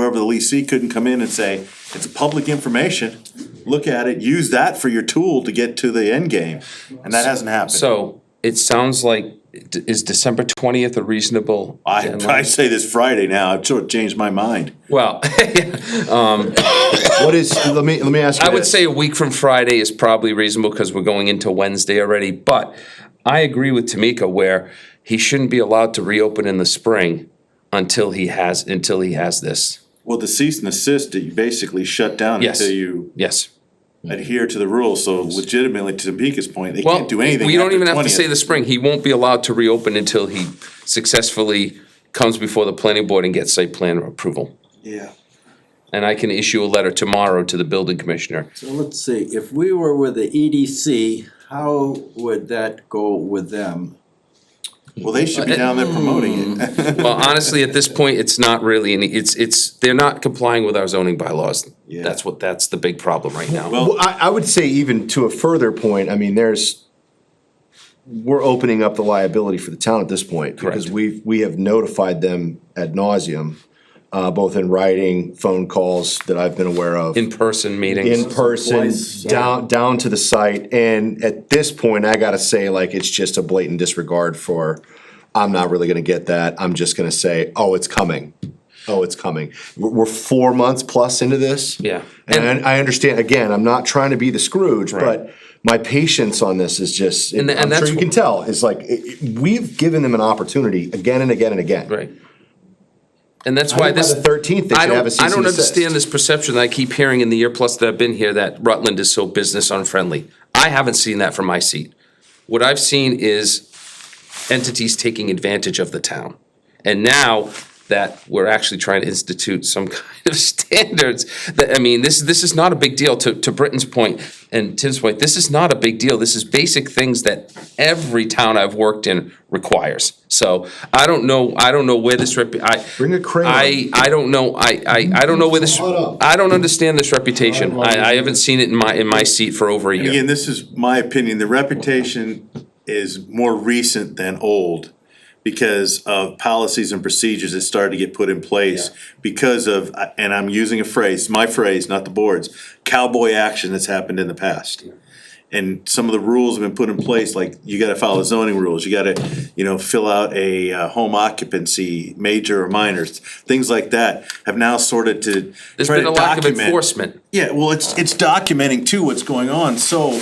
of the leasee couldn't come in and say, it's public information. Look at it, use that for your tool to get to the end game, and that hasn't happened. So it sounds like, d- is December twentieth a reasonable? I, deadline? I say this Friday now, I've sort of changed my mind. Well, What is, let me, let me ask you I would this. say a week from Friday is probably reasonable because we're going into Wednesday already, but I agree with Tamika where he shouldn't be allowed to reopen in the spring until he has, until he has this. Well, the cease and desist, that you basically shut down Yes. until you Yes. adhere to the rules, so legitimately, to Topeka's point, they Well, can't do anything we don't after even have to 20th. say the spring. He won't be allowed to reopen until he successfully comes before the planning board and gets site plan approval. Yeah, And I can issue a letter tomorrow to the building commissioner. so let's see, if we were with the EDC, how would that go with them? Well, they should be down there promoting it. Well, honestly, at this point, it's not really, any it's, it's, they're not complying with our zoning bylaws. Yeah. That's what, that's the big problem right now. Well- Well, I, I would say even to a further point, I mean, there's, we're opening up the liability for the town at this point. Because Correct. we've, we have notified them ad nauseum, uh, both in writing, phone calls that I've been aware of. In-person in meetings. person, Twice, yeah. down, down to the site, and at this point, I gotta say, like, it's just a blatant disregard for, I'm not really gonna get that, I'm just gonna say, oh, it's coming. Oh, it's coming. We're, we're four months plus into this. Yeah. And I, I understand, again, I'm not trying to be the Scrooge, but my patience on this is just, And- and I'm sure that's- you can tell, is like, it- it- we've given them an opportunity again and again and again. Right. And that's By why this. the thirteenth, they I should have a don't, cease I and don't desist. understand this perception that I keep hearing in the year plus that I've been here that Rutland is so business unfriendly. I haven't seen that from my seat. What I've seen is entities taking advantage of the town. And now that we're actually trying to institute some kind of standards, that, I mean, this, this is not a big deal, to, to Britton's point and Tim's point, this is not a big deal, this is basic things that every town I've worked in requires. So I don't know, I don't know where this rep, I. Bring a crayon. I, I don't know, I, I, I don't know where this, Hold up. I don't understand this reputation, I, I haven't seen it in my, in my seat for over a year. Again, this is my opinion, the reputation is more recent than old because of policies and procedures that started to get put in place because of, and I'm using a phrase, my phrase, not the board's, cowboy action that's happened in the past. And some of the rules have been put in place, like you gotta follow the zoning rules, you gotta, you know, fill out a uh, home occupancy, major or minor, things like that have now sorted to. There's try been to a lack of document- enforcement. yeah, well, Uh. it's, it's documenting too what's going on, so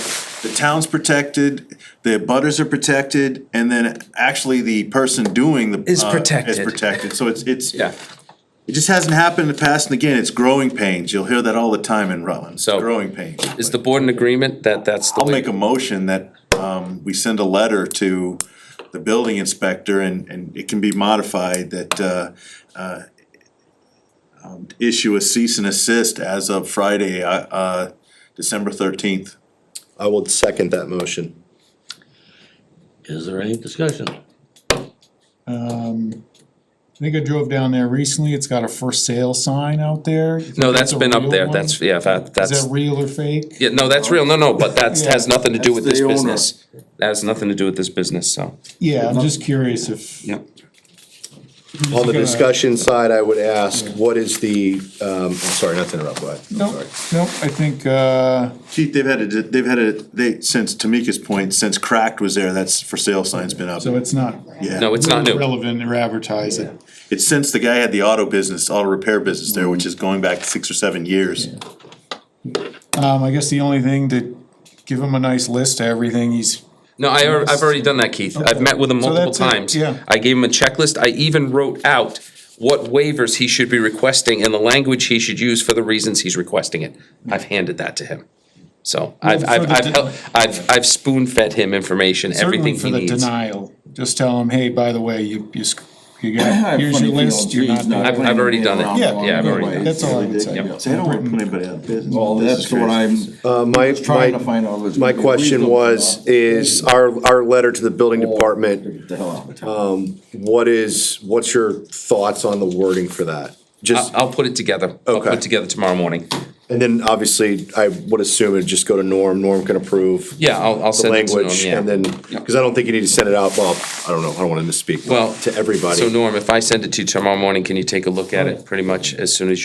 the town's protected, the butters are protected, and then actually the person doing the. Is uh, Is protected. protected, so it's, it's, Yeah, it just hasn't happened in the past, and again, it's growing pains, you'll hear that all the time in Rutland, it's So- growing pains. is the board in agreement that that's the I'll way? make a motion that, um, we send a letter to the building inspector and, and it can be modified that, uh, uh, um, issue a cease and assist as of Friday, uh, uh, December thirteenth. I will second that motion. Is there any discussion? I think I drove down there recently, it's got a for sale sign out there. You think No, that's a been up real there, one? that's, yeah, that, that's. Is that real or fake? Yeah, no, that's real, no, no, but that's, has nothing to do with That's this the owner. business. That has nothing to do with this business, so. Yeah, I'm just curious if. Yep. On the gonna- discussion side, I would ask, what is the, um, I'm sorry, not to interrupt, but Nope, nope, I think, uh, Chief, they've had a, they've had a, they, since Tamika's point, since Cracked was there, that's for sale sign's been up. so it's not No, it's not new. relevant or advertising. It's since the guy had the auto business, auto repair business Mm-hmm. there, which is going back six or seven years. Um, I guess the only thing to give him a nice list of everything he's, No, I, al- I've already done that, Keith. I've met with him So multiple that's it, times. yeah. I gave him a checklist. I even wrote out what waivers he should be requesting and the language he should use for the reasons he's requesting it. I've handed that to him. So I've, Well, for I've, the I've, de- hel- I've, I've spoon fed him information, certainly everything for he the needs. denial, just tell him, hey, by the way, you, you, sc- you got, have here's funny your list, feelings, you're he's not. doing not- it. I've, I've already done it. Yeah, Yeah, I've already done it. That's all I would say. They don't wanna put anybody out of business. Well, This is that's what crazy. I'm Uh, my, trying to my, find out. is my we- we question look was, it is our, our letter to the building up. department, Get the hell out of town. what is, what's your thoughts on the wording for that? I'll, Just, I'll put it together. I'll put Okay. it together tomorrow morning. and then obviously, I would assume it'd just go to Norm, Norm can approve. Yeah, I'll, I'll The send it to him, language, yeah. and then, cause I don't think you need to send it out, well, I don't know, I don't wanna misspeak, Well, to everybody. So Norm, if I send it to you tomorrow morning, can you take a look at it pretty much as soon as you?